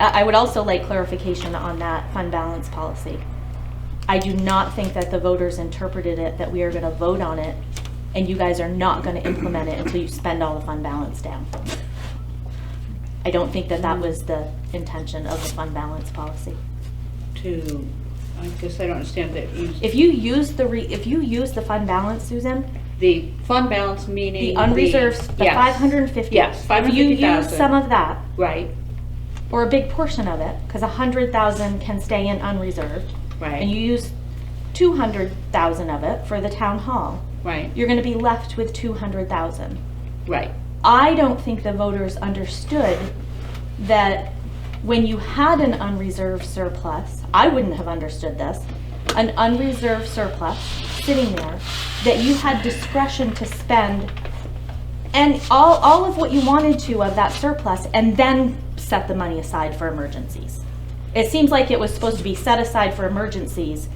I I would also like clarification on that fund balance policy. I do not think that the voters interpreted it that we are going to vote on it, and you guys are not going to implement it until you spend all the fund balance down. I don't think that that was the intention of the fund balance policy. to, I guess I don't understand that you, If you use the, re- if you use the fund balance, Susan, the fund balance meaning. the unreserved, the yes. 550. Yes, If you use 550,000. some of that, Right, or a big portion of it, because 100,000 can stay in unreserved, and right, you use 200,000 of it for the town hall, right, you're going to be left with 200,000. right. I don't think the voters understood that when you had an unreserved surplus, I wouldn't have understood this, an unreserved surplus sitting there, that you had discretion to spend and all, all of what you wanted to of that surplus and then set the money aside for emergencies. It seems like it was supposed to be set aside for emergencies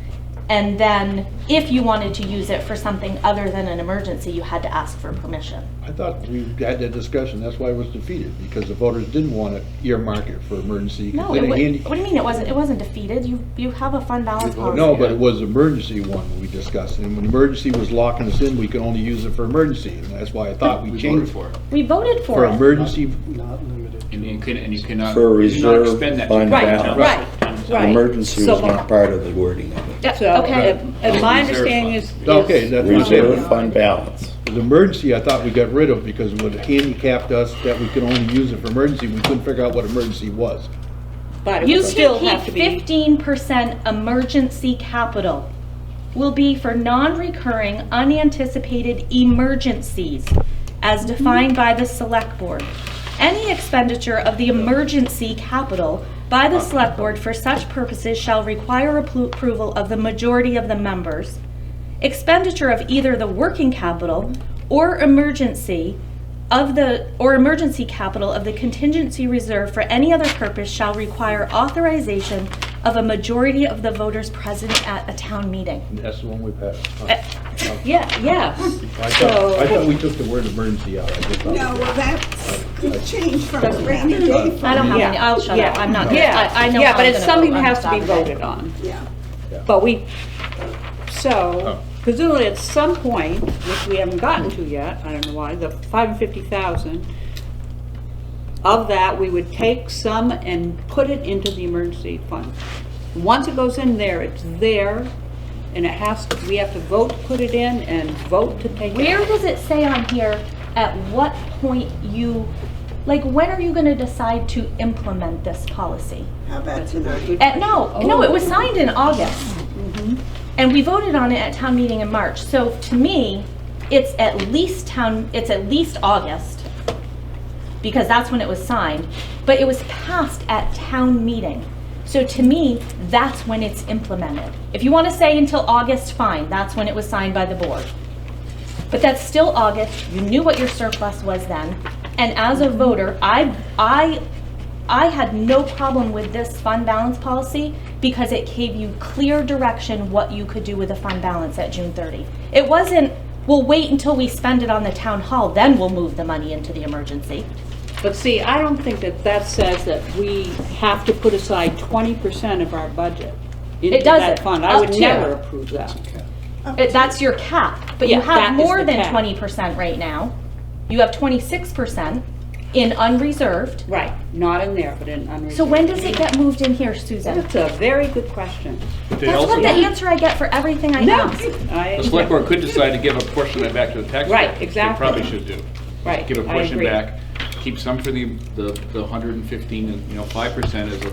and then if you wanted to use it for something other than an emergency, you had to ask for permission. I thought we had that discussion, that's why it was defeated, because the voters didn't want to earmark it for emergency. 'cause No, then it it wa- handy- what do you mean it wasn't, it wasn't defeated? You, you have a fund balance policy. No, but it was emergency one we discussed, and when emergency was locking us in, we could only use it for emergency, and that's why I thought we We voted changed. for it. We voted for For it. emergency, Not limited And you can, and you cannot, For a you cannot reserve expend that. fund Right, balance. right, right. Emergency So- uh, was not part of the wording of it. So, okay. and- and my understanding is. is- okay, that's what I'm Reserve saying. fund balance. The emergency, I thought we got rid of because it would handicapped us that we could only use it for emergency, we couldn't figure out what emergency was. But it You would still can have to keep be, fifteen percent emergency capital will be for non-recurring unanticipated emergencies as defined by the select board. Any expenditure of the emergency capital by the select board for such purposes shall require appro- approval of the majority of the members. Expenditure of either the working capital or emergency of the, or emergency capital of the contingency reserve for any other purpose shall require authorization of a majority of the voters present at a town meeting. And That's the one we passed. Uh, I yeah, Hmm. yes. thought, I thought we took the word emergency out. I just thought- No, well, that's could change from a rainy day I don't fund. have any, Yeah, I'll shut yeah, up, I'm not, Yeah, I, I know. Yeah, how but I'm it's gonna something vote that on has to be Saturday. voted on. Yeah. But we, so presumably at some point, which we haven't gotten to yet, I don't know why, the five hundred fifty thousand, of that, we would take some and put it into the emergency fund. Once it goes in there, it's there, and it has, to. we have to vote to put it in and vote to take it. Where out. does it say on here, at what point you, like, when are you gonna decide to implement this policy? How about tonight? Uh, no, no, it was signed in August. And we voted on it at town meeting in March. So to me, it's at least town, it's at least August, because that's when it was signed. But it was passed at town meeting. So to me, that's when it's implemented. If you want to say until August, fine, that's when it was signed by the board. But that's still August, you knew what your surplus was then. And as a voter, I, I I had no problem with this fund balance policy because it gave you clear direction what you could do with the fund balance at June 30. It wasn't, we'll wait until we spend it on the town hall, then we'll move the money into the emergency. But see, I don't think that that says that we have to put aside twenty percent of our budget into that doesn't. fund. I Up would to. never approve that. It- That's your cap, but you Yeah, that have is more the than cap. 20% right now. You have 26% in unreserved. Right, not in there, but in unreserved. So when does it get moved in here, Susan? That's a very good question. They That's also- what the answer I get for everything I No, ask. I, The select board could decide to give a portion of it back to the taxpayer. Right, They exactly. probably should do. right, Give a I portion agree. back, keep some for the, the the 115, and, you know, 5% is a-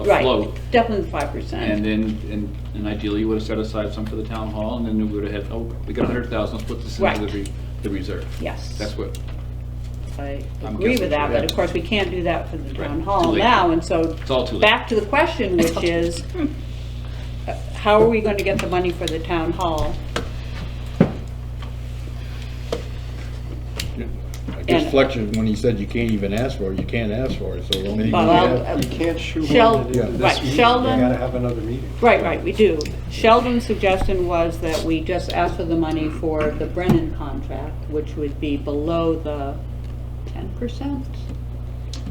a Right, float. definitely five percent. And then, and and ideally, you would have set aside some for the town hall, and then we would have had, oh, we got 100,000, let's put this into Right. the re- the reserve. Yes. That's what, I I'm agree guessing with that, but so, of yeah. course, we can't do that for the town Right, hall too late. now, and so. It's all too late. Back to the question, which is, uh, how are we going to get the money for the town hall? I guess Fletcher, when he said you can't even ask for it, you can't ask for it, so. when you Well, have- I'll- You can't shoehorn Shel- it into right, this meeting. You Sheldon- gotta have another meeting. Right, right, we do. Sheldon's suggestion was that we just ask for the money for the Brennan contract, which would be below the ten percent?